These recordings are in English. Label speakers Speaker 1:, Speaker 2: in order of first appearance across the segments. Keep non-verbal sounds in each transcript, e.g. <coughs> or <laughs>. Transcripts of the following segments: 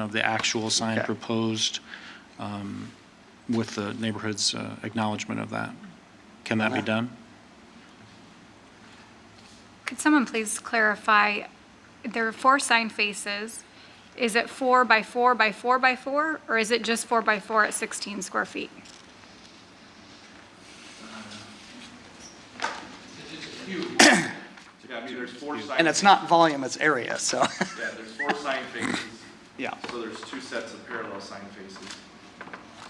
Speaker 1: of the actual sign
Speaker 2: Okay.
Speaker 1: proposed um, with the neighborhood's uh, acknowledgement of that. Can that be done?
Speaker 3: Could someone please clarify, there are four sign faces. Is it four by four by four by four, or is it just four by four at 16 square feet?
Speaker 2: <coughs>
Speaker 4: Yeah, I mean, there's four sign.
Speaker 2: And it's not volume, it's area, so, <laughs>
Speaker 4: Yeah, there's four sign faces,
Speaker 2: yeah.
Speaker 4: so there's two sets of parallel sign faces.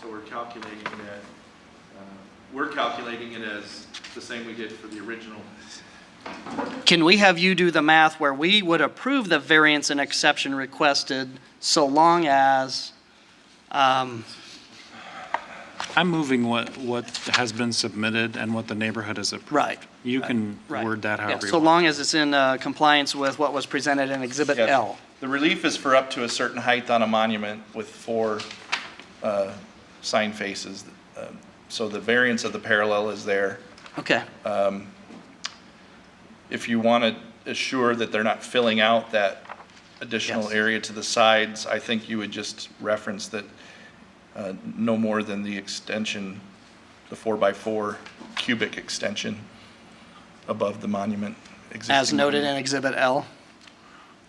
Speaker 4: So we're calculating that, uh, we're calculating it as the same we did for the original.
Speaker 2: Can we have you do the math where we would approve the variance and exception requested so long as, um,
Speaker 1: I'm moving what, what has been submitted and what the neighborhood has approved.
Speaker 2: right,
Speaker 1: You can
Speaker 2: right.
Speaker 1: word that
Speaker 2: yeah,
Speaker 1: however you
Speaker 2: So
Speaker 1: want.
Speaker 2: long as it's in uh, compliance with what was presented in Exhibit
Speaker 5: Yeah.
Speaker 2: L.
Speaker 5: The relief is for up to a certain height on a monument with four uh, sign faces. Um, So the variance of the parallel is there.
Speaker 2: Okay,
Speaker 5: If you want to assure that they're not filling out that additional
Speaker 2: Yes.
Speaker 5: area to the sides, I think you would just reference that uh, no more than the extension, the four-by-four cubic extension above the monument. existing
Speaker 2: as noted
Speaker 5: monument.
Speaker 2: in Exhibit L.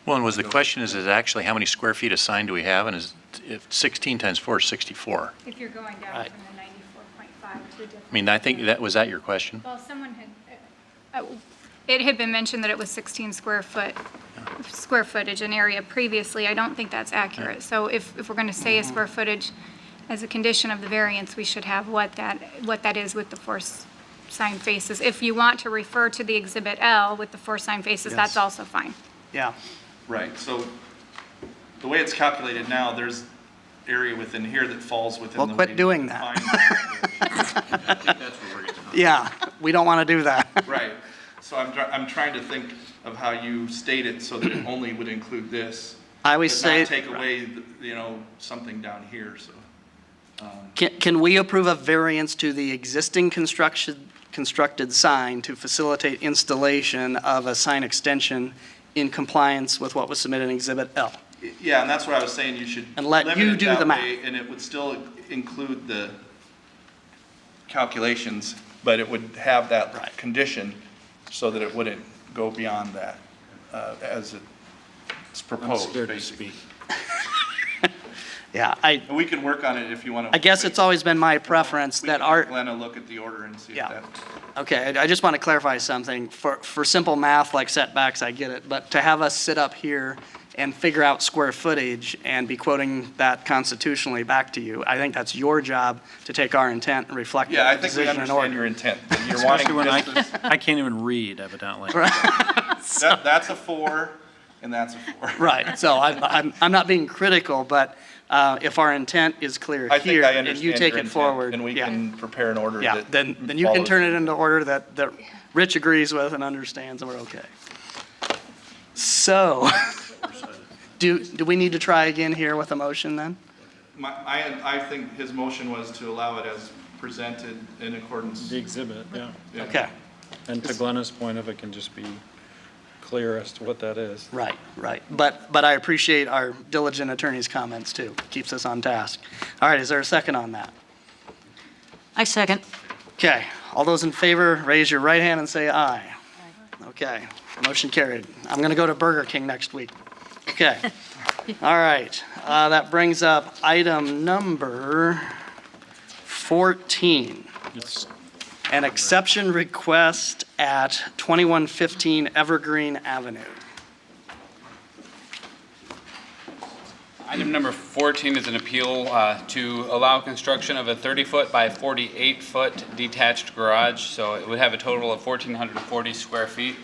Speaker 6: Well, and was the question is, is actually how many square feet of sign do we have? And is, if 16 times 4 is 64.
Speaker 3: If you're going down
Speaker 2: Right.
Speaker 3: from the 94.5 to a different.
Speaker 6: I mean, I think that, was that your question?
Speaker 3: Well, someone had, uh, it had been mentioned that it was 16 square foot, square footage in area previously. I don't think that's accurate. So if, if we're going to say a square footage as a condition of the variance, we should have what that, what that is with the four s- sign faces. If you want to refer to the Exhibit L with the four sign faces, that's
Speaker 2: Yes.
Speaker 3: also fine.
Speaker 2: Yeah,
Speaker 5: Right, so the way it's calculated now, there's area within here that falls within the.
Speaker 2: Well, quit
Speaker 5: way
Speaker 2: doing
Speaker 5: you
Speaker 2: that. <laughs>
Speaker 5: define-
Speaker 2: yeah, <laughs> we don't want to do that. <laughs>
Speaker 5: Right, so I'm, try- I'm trying to think of how you state it so that it only would include this.
Speaker 2: I always
Speaker 5: but
Speaker 2: say.
Speaker 5: not take away, the- you know, something down here, so.
Speaker 2: Can, can we approve a variance to the existing construction, constructed sign to facilitate installation of a sign extension in compliance with what was submitted in Exhibit L?
Speaker 5: Yeah, and that's what I was saying, you should.
Speaker 2: And let
Speaker 5: limit
Speaker 2: you
Speaker 5: it
Speaker 2: do
Speaker 5: that
Speaker 2: the math.
Speaker 5: way, And it would still include the calculations, but it would have
Speaker 2: Right.
Speaker 5: that condition so that it wouldn't go beyond that uh, as it's proposed, basically.
Speaker 2: Yeah, I,
Speaker 5: And we can work on it if you want to.
Speaker 2: I guess it's always been my preference
Speaker 5: We can
Speaker 2: that our,
Speaker 5: have Glenn, a look at the order and see if
Speaker 2: Yeah.
Speaker 5: that.
Speaker 2: Okay, I I just want to clarify something. For, for simple math like setbacks, I get it, but to have us sit up here and figure out square footage and be quoting that constitutionally back to you, I think that's your job to take our intent and reflect
Speaker 5: Yeah, I
Speaker 2: that
Speaker 5: think we
Speaker 2: decision in
Speaker 5: understand
Speaker 2: order.
Speaker 5: your intent.
Speaker 2: <laughs>
Speaker 5: but You're
Speaker 1: Especially
Speaker 5: wanting
Speaker 1: when I,
Speaker 5: this, is-
Speaker 1: <laughs> I can't even read evidently.
Speaker 5: that- that's a four and that's a four.
Speaker 2: Right, so I'm, I'm, I'm not being critical, but uh, if our intent is clear
Speaker 5: I think
Speaker 2: here
Speaker 5: I
Speaker 2: and
Speaker 5: understand
Speaker 2: you
Speaker 5: your
Speaker 2: take it
Speaker 5: intent,
Speaker 2: forward,
Speaker 5: And we
Speaker 2: yeah,
Speaker 5: can prepare an order
Speaker 2: yeah,
Speaker 5: that.
Speaker 2: then, then you can
Speaker 5: follows
Speaker 2: turn it into order that, that Rich agrees with and understands, and we're okay. So, <laughs> do, do we need to try again here with a motion then?
Speaker 5: My, I, I think his motion was to allow it as presented in accordance.
Speaker 1: The exhibit, yeah.
Speaker 5: yeah.
Speaker 2: Okay,
Speaker 1: And to Glenna's point of it can just be clear as to what that is.
Speaker 2: right, right. But, but I appreciate our diligent attorney's comments too. Keeps us on task. All right, is there a second on that?
Speaker 7: I second.
Speaker 2: Okay, all those in favor, raise your right hand and say aye. Okay, motion carried. I'm going to go to Burger King next week. Okay, all right. Uh, That brings up item number 14,
Speaker 1: It's
Speaker 2: an exception request at 2115 Evergreen Avenue.
Speaker 8: Item number 14 is an appeal uh, to allow construction of a 30-foot by 48-foot detached garage, so it would have a total of 1,440 square feet.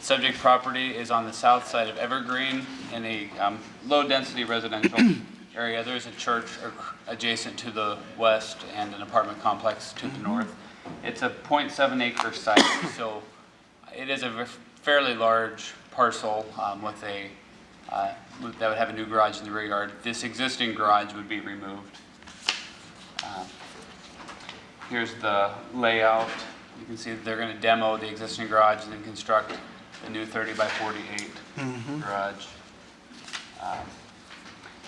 Speaker 8: Subject property is on the south side of Evergreen in a um, low-density residential area. There is a church ac- adjacent to the west and an apartment complex to the north. It's a .7 acre site, so it is a ver- fairly large parcel um, with a, uh, with- that would have a new garage in the rear yard. This existing garage would be removed. Um, Here's the layout. You can see that they're going to demo the existing garage and then construct the new 30 by 48 garage. Um,